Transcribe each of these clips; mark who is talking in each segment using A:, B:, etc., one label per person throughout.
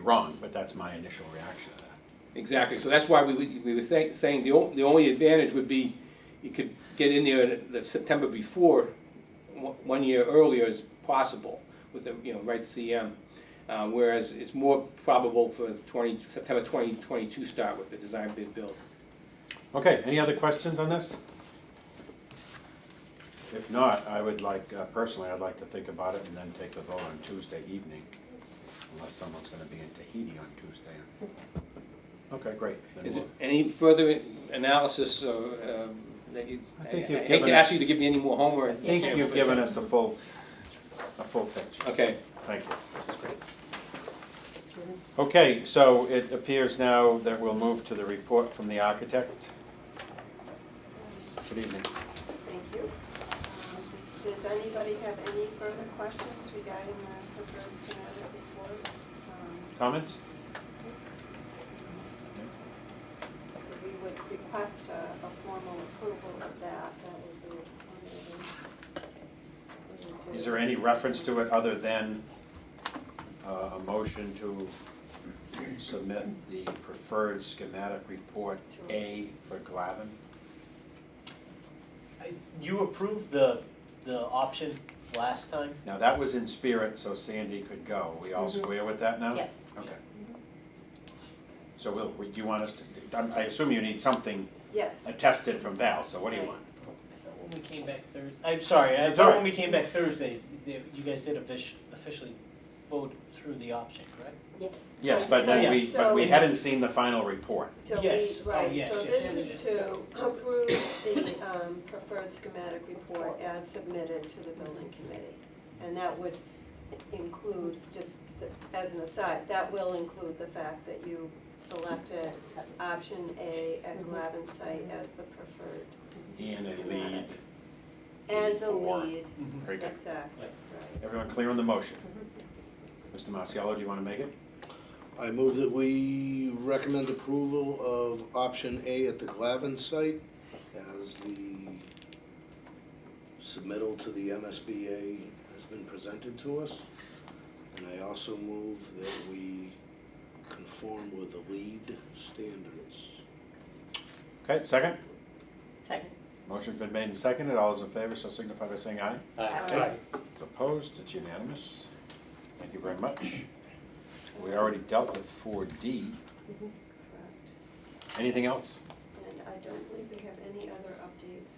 A: wrong, but that's my initial reaction to that.
B: Exactly, so that's why we, we we were saying, saying the only, the only advantage would be, you could get in there the September before, one one year earlier is possible with the, you know, right CM. Uh, whereas it's more probable for twenty, September twenty twenty-two start with the design bid build.
A: Okay, any other questions on this? If not, I would like, uh, personally, I'd like to think about it and then take the vote on Tuesday evening, unless someone's gonna be in Tahiti on Tuesday. Okay, great. then
B: Is
A: we'll-
B: it any further analysis or, um, that you,
A: I
B: I
A: think you've
B: I hate
A: given
B: to
A: us-
B: ask you to give me any more homework.
A: I think you've given us a full, a full picture.
B: Okay,
A: Thank you. This is great. Okay, so it appears now that we'll move to the report from the architect. Good evening.
C: Thank you. Does anybody have any further questions regarding the proposed kinetic report? Um,
A: Comments?
C: So we would request a, a formal approval of that, that would be. one of the-
A: Is there any reference to it other than uh, a motion to submit the preferred schematic report A for Glavin?
D: I- You approved the, the option last time?
A: Now, that was in spirit, so Sandy could go. We all
C: Mhm.
A: square with that now?
E: Yes.
A: Okay. So will, do you want us to, I'm- I assume you need something
C: Yes,
A: attested from Val, so what do you want?
D: I thought when we came back Thursday, I'm sorry, I
A: It's
D: thought
A: alright.
D: when we came back Thursday, that you guys did offici- officially vote through the option, correct?
C: yes.
A: Yes, but then we,
D: Yes.
A: but we
C: So-
A: hadn't seen the final report.
C: So we,
D: Yes, oh,
C: right,
D: yes,
C: so
D: yes,
C: this
D: yes,
C: is to approve the um, preferred schematic report as submitted to the building committee. And that would include, just the- as an aside, that will include the fact that you selected option A at Glavin site as the preferred.
A: And a lead.
C: And the
A: Four.
C: lead,
D: Mm-hmm.
A: Very good.
C: exactly, right.
A: Everyone clear on the motion? Mr. Marciello, do you want to make it?
F: I move that we recommend approval of option A at the Glavin site as the submittal to the MSBA has been presented to us. And I also move that we conform with the lead standards.
A: Okay, second?
E: Second.
A: Motion's been made and seconded. All those in favor, so signify by saying aye.
C: Aye.
A: Opposed, it's unanimous. Thank you very much. We already dealt with four D.
C: Correct.
A: Anything else?
C: And I don't believe we have any other updates.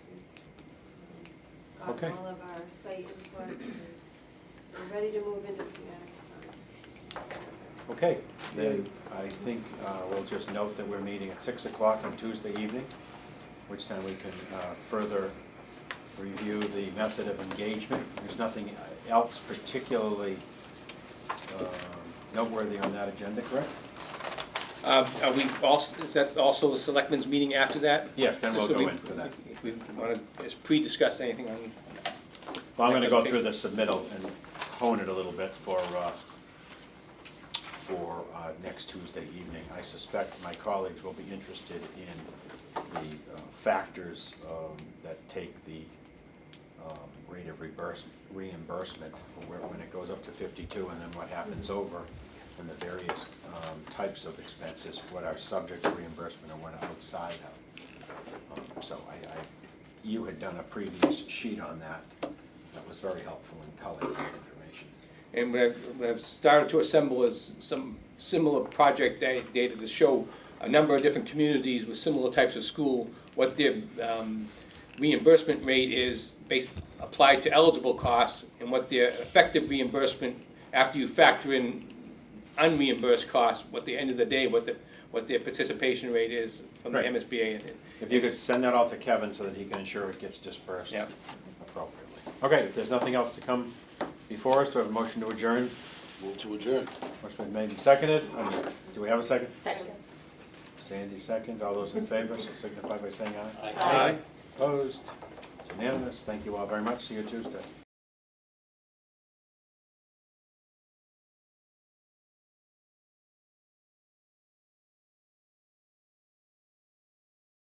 C: We've um,
A: Okay.
C: gotten all of our site input. and So we're ready to move into schematic design.
A: Okay, then I think uh, we'll just note that we're meeting at six o'clock on Tuesday evening, which time we can uh, further review the method of engagement. There's nothing else particularly um, noteworthy on that agenda, correct?
B: uh, are we also, is that also the selectmen's meeting after that?
A: Yes, then we'll
B: So
A: go
B: we-
A: into that.
B: If we wanna, is pre-discuss anything on
A: Well, I'm gonna go through the submittal and hone it a little bit for, uh, for uh, next Tuesday evening. I suspect my colleagues will be interested in the uh, factors um, that take the um, rate of reimburse- reimbursement, where- when it goes up to 52, and then what happens over, and the various um, types of expenses, what are subject to reimbursement and what are outside of. Um, So I, I, you had done a previous sheet on that, that was very helpful in coloring that information.
B: And what I've, what I've started to assemble is some similar project da- data to show a number of different communities with similar types of school, what their um, reimbursement rate is based, applied to eligible costs, and what their effective reimbursement, after you factor in unreimbursed costs, what the end of the day, what the, what their participation rate is from the
A: Right.
B: MSBA. and-
A: If you could send that all to Kevin so that he can ensure it gets dispersed
B: Yep.
A: appropriately. Okay, if there's nothing else to come before us, do I have a motion to adjourn?
F: Move to adjourn.
A: Motion been made and seconded. Um, Do we have a second?
E: Second.
A: Sandy second. All those in favor, so signify by saying aye.
E: Aye.
A: Opposed? It's Unanimous. Thank you all very much. See you Tuesday.